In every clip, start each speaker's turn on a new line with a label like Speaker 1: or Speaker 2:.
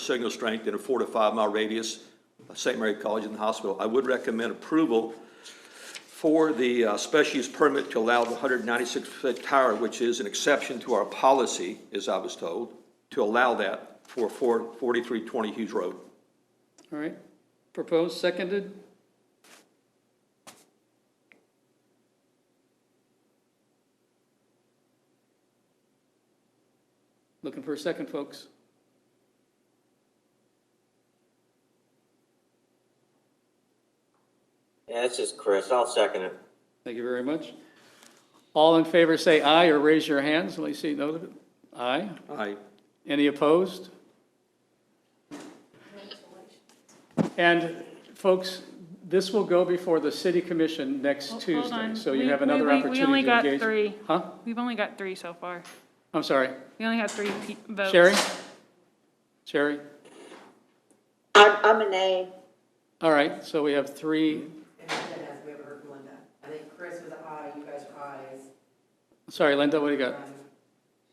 Speaker 1: signal strength in a four to five mile radius of St. Mary College and the hospital. I would recommend approval for the uh, special use permit to allow the 196-foot tower, which is an exception to our policy, as I was told, to allow that for 4- 4320 Hughes Road.
Speaker 2: All right, proposed, seconded? Looking for a second, folks?
Speaker 3: Yeah, this is Chris. I'll second it.
Speaker 2: Thank you very much. All in favor, say aye or raise your hands. Let me see, no, aye?
Speaker 1: Aye.
Speaker 2: Any opposed? And folks, this will go before the city commission next
Speaker 4: Hold- hold
Speaker 2: Tuesday,
Speaker 4: on.
Speaker 2: so you
Speaker 4: We-
Speaker 2: have
Speaker 4: we-
Speaker 2: another
Speaker 4: we- we only
Speaker 2: opportunity to
Speaker 4: got
Speaker 2: engage.
Speaker 4: three.
Speaker 2: Huh?
Speaker 4: We've only got three so far.
Speaker 2: I'm sorry.
Speaker 4: We only have three pe- votes.
Speaker 2: Sherry? Sherry?
Speaker 5: I'm, I'm an A.
Speaker 2: All right, so we have three,
Speaker 6: And then as we ever heard from Linda, I think Chris was I, you guys are I's,
Speaker 2: sorry, Linda, what do you got?
Speaker 6: um,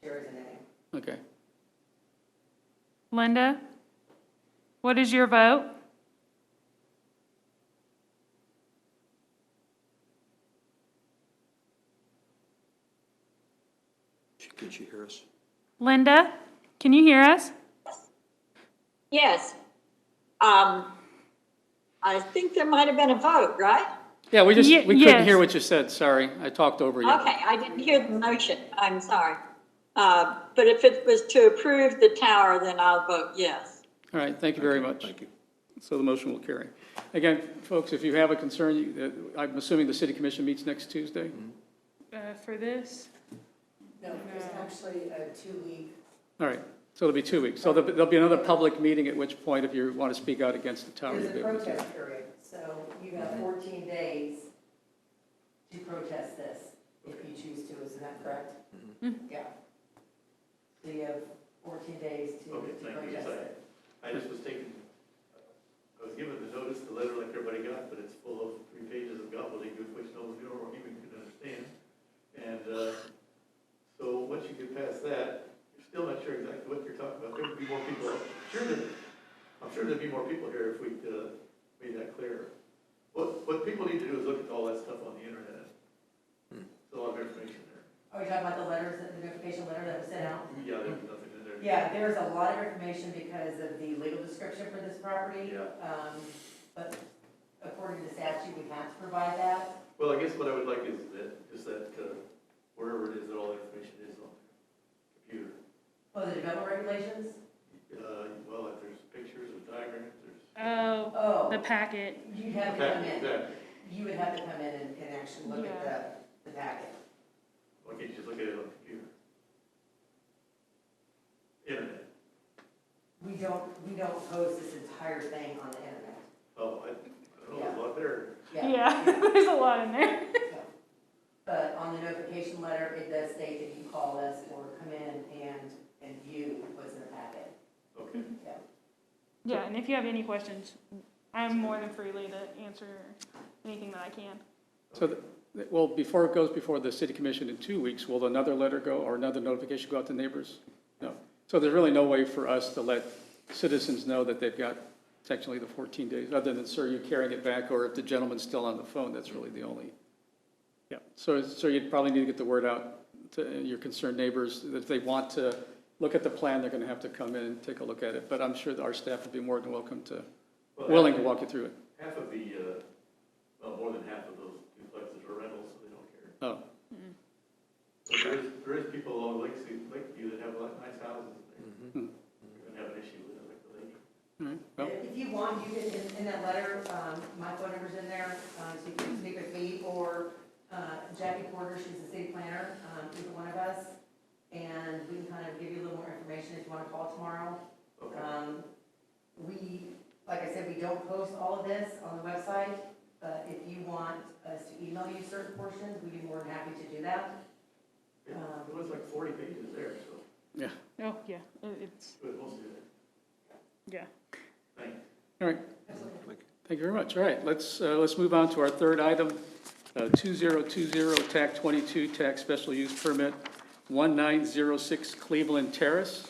Speaker 6: Sherry's an A.
Speaker 2: Okay.
Speaker 4: Linda, what is your vote?
Speaker 1: She- Can she hear us?
Speaker 4: Linda, can you hear us?
Speaker 5: Yes. Um, I think there might have been a vote, right?
Speaker 2: Yeah, we just,
Speaker 4: Ye-
Speaker 2: we couldn't hear
Speaker 4: yes.
Speaker 2: what you said, sorry. I talked over you.
Speaker 5: Okay, I didn't hear the motion. I'm sorry. Uh, but if it was to approve the tower, then I'll vote yes.
Speaker 2: All right, thank you very much.
Speaker 1: Thank you.
Speaker 2: So the motion will carry. Again, folks, if you have a concern, you- uh, I'm assuming the city commission meets next Tuesday?
Speaker 4: Uh, for this?
Speaker 6: No, there's actually a two-week
Speaker 2: All right, so it'll be two weeks. So there'll be- there'll be another public meeting, at which point, if you want to speak out against the tower, you'll
Speaker 6: There's
Speaker 2: be
Speaker 6: a
Speaker 2: able to. do it.
Speaker 6: protest period, so you have fourteen days to protest this, if you choose to, isn't that correct?
Speaker 7: Mm-hmm.
Speaker 6: Yeah. So you have fourteen days to
Speaker 7: Okay,
Speaker 6: to
Speaker 7: thank you.
Speaker 6: protest it.
Speaker 7: I just was taking, I was given the notice, the letter like everybody got, but it's full of three pages of gobbledygook, which no one or human can understand. And, uh, so once you get past that, you're still not sure exactly what you're talking about. There would be more people, sure, there- I'm sure there'd be more people here if we, uh, made that clearer. What, what people need to do is look at all that stuff on the internet. There's a lot of information there.
Speaker 6: Are we Oh, talking about the letters, the notification letter that was sent out?
Speaker 7: Yeah, there's nothing in there.
Speaker 6: Yeah, there's a lot of information because of the legal description for this property.
Speaker 7: Yeah.
Speaker 6: Um, but according to statute, we have to provide that.
Speaker 7: Well, I guess what I would like is that, is that, uh, wherever it is that all the information is on the computer.
Speaker 6: Oh, the development regulations?
Speaker 7: Uh, well, if there's pictures or diagrams, there's.
Speaker 4: Oh, the
Speaker 6: Oh,
Speaker 4: packet.
Speaker 6: you'd have to come
Speaker 7: Okay,
Speaker 6: in,
Speaker 7: Exactly.
Speaker 6: you would have to come in and, and actually look at the, the packet.
Speaker 7: Why can't you just look at it on the computer? Internet.
Speaker 6: We don't, we don't post this entire thing on the internet.
Speaker 7: Oh, I, I don't know, it's a lot better.
Speaker 4: Yeah, there's a lot in there.
Speaker 6: so. But on the notification letter, it does state that you call us or come in and, and view what's in the packet.
Speaker 7: Okay.
Speaker 6: Yeah.
Speaker 4: Yeah, and if you have any questions, I'm more than freely to answer anything that I can.
Speaker 2: So, th- th- well, before it goes before the city commission in two weeks, will another letter go, or another notification go out to neighbors? No. So there's really no way for us to let citizens know that they've got technically the 14 days, other than, sir, you carrying it back, or if the gentleman's still on the phone, that's really the only. Yeah, so, so you'd probably need to get the word out to your concerned neighbors, that if they want to look at the plan, they're going to have to come in and take a look at it. But I'm sure that our staff would be more than welcome to,
Speaker 7: Well,
Speaker 2: willing to
Speaker 7: half-
Speaker 2: walk you through it.
Speaker 7: Half of the, uh, well, more than half of those duplexes are rentals, so they don't care.
Speaker 2: Oh,
Speaker 7: But there is, there is people along Lakeview, Lakeview that have like nice houses there.
Speaker 2: Mhm.
Speaker 7: You're gonna have an issue with it, like the lady.
Speaker 2: all right, well.
Speaker 6: If you want, you can, in, in that letter, um, my phone number's in there, um, so you can speak with me or, uh, Jackie Porter, she's the city planner, um, either one of us. And we can kind of give you a little more information if you wanna call tomorrow.
Speaker 7: Okay.
Speaker 6: Um, we, like I said, we don't post all of this on the website, but if you want us to email you certain portions, we'd be more than happy to do that.
Speaker 7: Yeah, It was like forty pages there, so,
Speaker 4: Oh, yeah, it- it's,
Speaker 7: but mostly there.
Speaker 4: yeah.
Speaker 7: Thank you.
Speaker 2: All right. Thank you very much. All right, let's, uh, let's move on to our third item, uh, 2020 TAC 22 TAC Special Use Permit 1906 Cleveland Terrace.